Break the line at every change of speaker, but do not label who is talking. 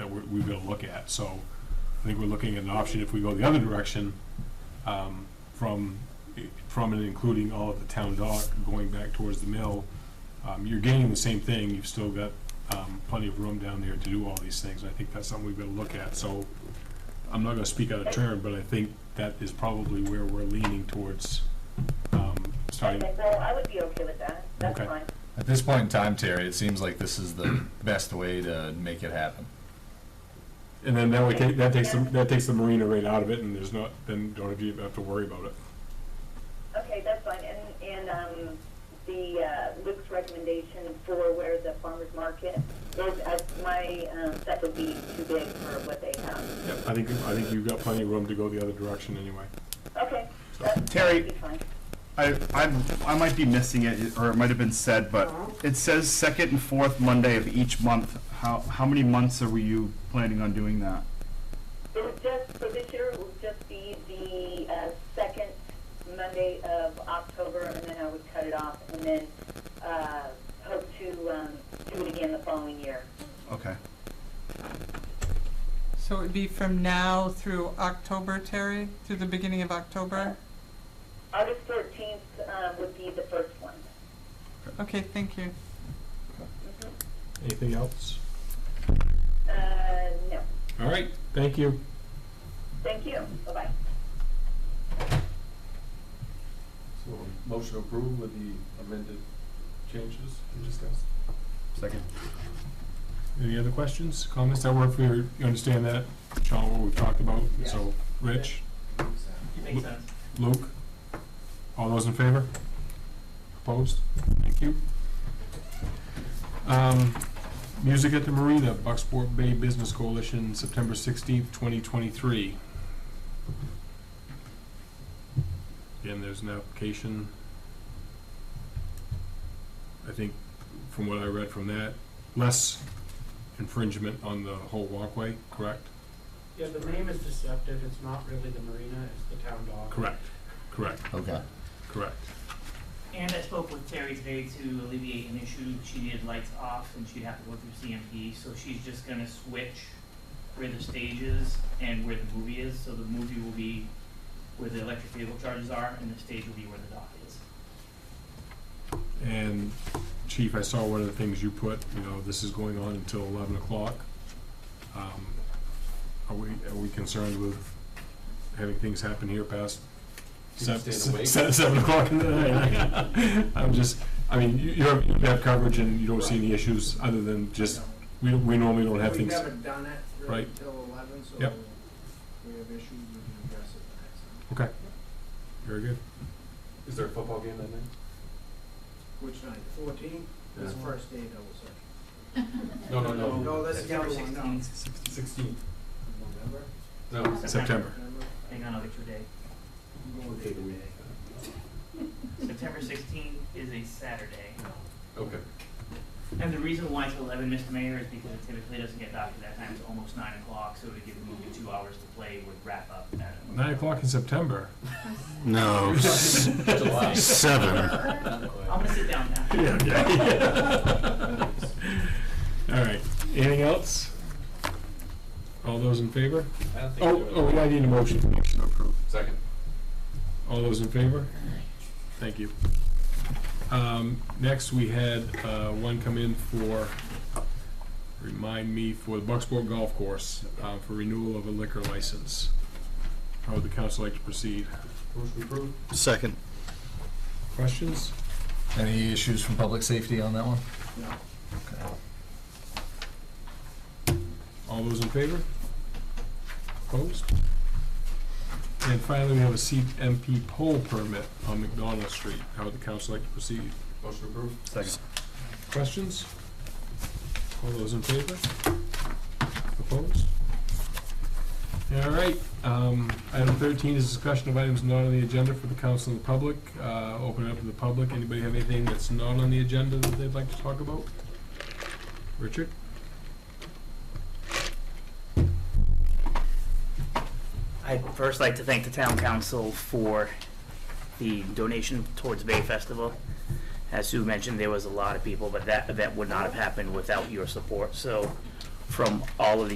we- we've got to look at. So I think we're looking at an option if we go the other direction, um, from, from and including all of the town dock, going back towards the mill. Um, You're gaining the same thing, you've still got um, plenty of room down there to do all these things. I think that's something we've got to look at. So I'm not going to speak out of turn, but I think that is probably where we're leaning towards um, starting.
Okay, so I would be okay with that, that's
Okay.
fine.
At this point in time, Terry, it seems like this is the best way to make it happen.
And then that way, ta- that takes, the- that takes the marina rate out of it, and there's not, then don't have to have to worry about it.
Okay, that's fine, and, and, um, the, uh, Luke's recommendation for where the farmer's market is, uh, my, um, that would be too big for what they have.
Yep, I think, I think you've got plenty of room to go the other direction anyway.
Okay, that-
Terry-
that'd be fine.
I, I, I might be missing it, or it might have been said, but it says second and fourth Monday of each month. How, how many months are you planning on doing that?
It would just, for this year, it would just be the, uh, second Monday of October, and then I would cut it off, and then, uh, hope to, um, do it again the following year.
Okay.
So it would be from now through October, Terry, through the beginning of
Uh,
October?
August fourteenth, um, would be the first one.
Okay, thank you.
Anything else?
Uh, no,
All right, thank you.
thank you, bye-bye.
So, motion approved with the amended changes we discussed?
Second.
Any other questions, comments? That work for your, you understand that, Sean, what we've talked about? So, Rich,
Makes sense.
Luke, all those in favor? Opposed? Thank you. Um, Music at the Marina, Bucksport Bay Business Coalition, September sixteenth, twenty twenty-three. Again, there's an application. I think, from what I read from that, less infringement on the whole walkway, correct?
Yeah, the name is deceptive, it's not really the marina, it's the town dock.
Correct, correct,
Okay.
correct.
And I spoke with Terry today to alleviate an issue. She needed lights off and she'd have to go through CMP, so she's just gonna switch where the stage is and where the movie is, so the movie will be where the electric vehicle charges are and the stage will be where the dock is.
And Chief, I saw one of the things you put, you know, this is going on until eleven o'clock. Um, Are we, are we concerned with having things happen here past
People
seven,
staying awake.
se- seven o'clock in the night? I'm just, I mean, you, you have, you have coverage and you don't see any issues other than just, we, don't- we normally don't have
We've
things.
never done it really
Right.
until eleven, so
Yep.
we have issues, we can address it the next time.
Okay, very good.
Is there a football game that night?
Which night, fourteen, that's the
Yeah.
first day double session.
No,
Oh,
no, no.
No, that's the
September
other one, no.
sixteenth,
Sixteenth.
November,
No.
September.
November,
hang on, I'll get your day.
I'm going day to day.
September sixteenth is a Saturday.
Okay.
And the reason why it's eleven, Mr. Mayor, is because it typically doesn't get docked at that time, it's almost nine o'clock, so to give the movie two hours to play would wrap up at
Nine o'clock in September.
No,
July.
seven.
I'm gonna sit down now.
Yeah, yeah. All right, anything else? All those in favor?
I don't think
Oh,
we're
oh,
doing
I
it.
need a motion. Motion approved.
Second.
All those in favor? Thank you. Um, next, we had, uh, one come in for, remind me, for the Bucksport Golf Course, uh, for renewal of a liquor license. How would the council like to proceed?
Motion approved.
Second.
Questions?
Any issues from public safety on that one?
All those in favor? Opposed? And finally, we have a CMP poll permit on McDonald Street. How would the council like to proceed?
Motion approved.
Second.
Questions? All those in favor? Opposed? All right, um, item thirteen is discussion of items not on the agenda for the council and the public. Uh, open it up to the public. Anybody have anything that's not on the agenda that they'd like to talk about? Richard?
I'd first like to thank the town council for the donation towards Bay Festival. As Sue mentioned, there was a lot of people, but that event would not have happened without your support. So from all of the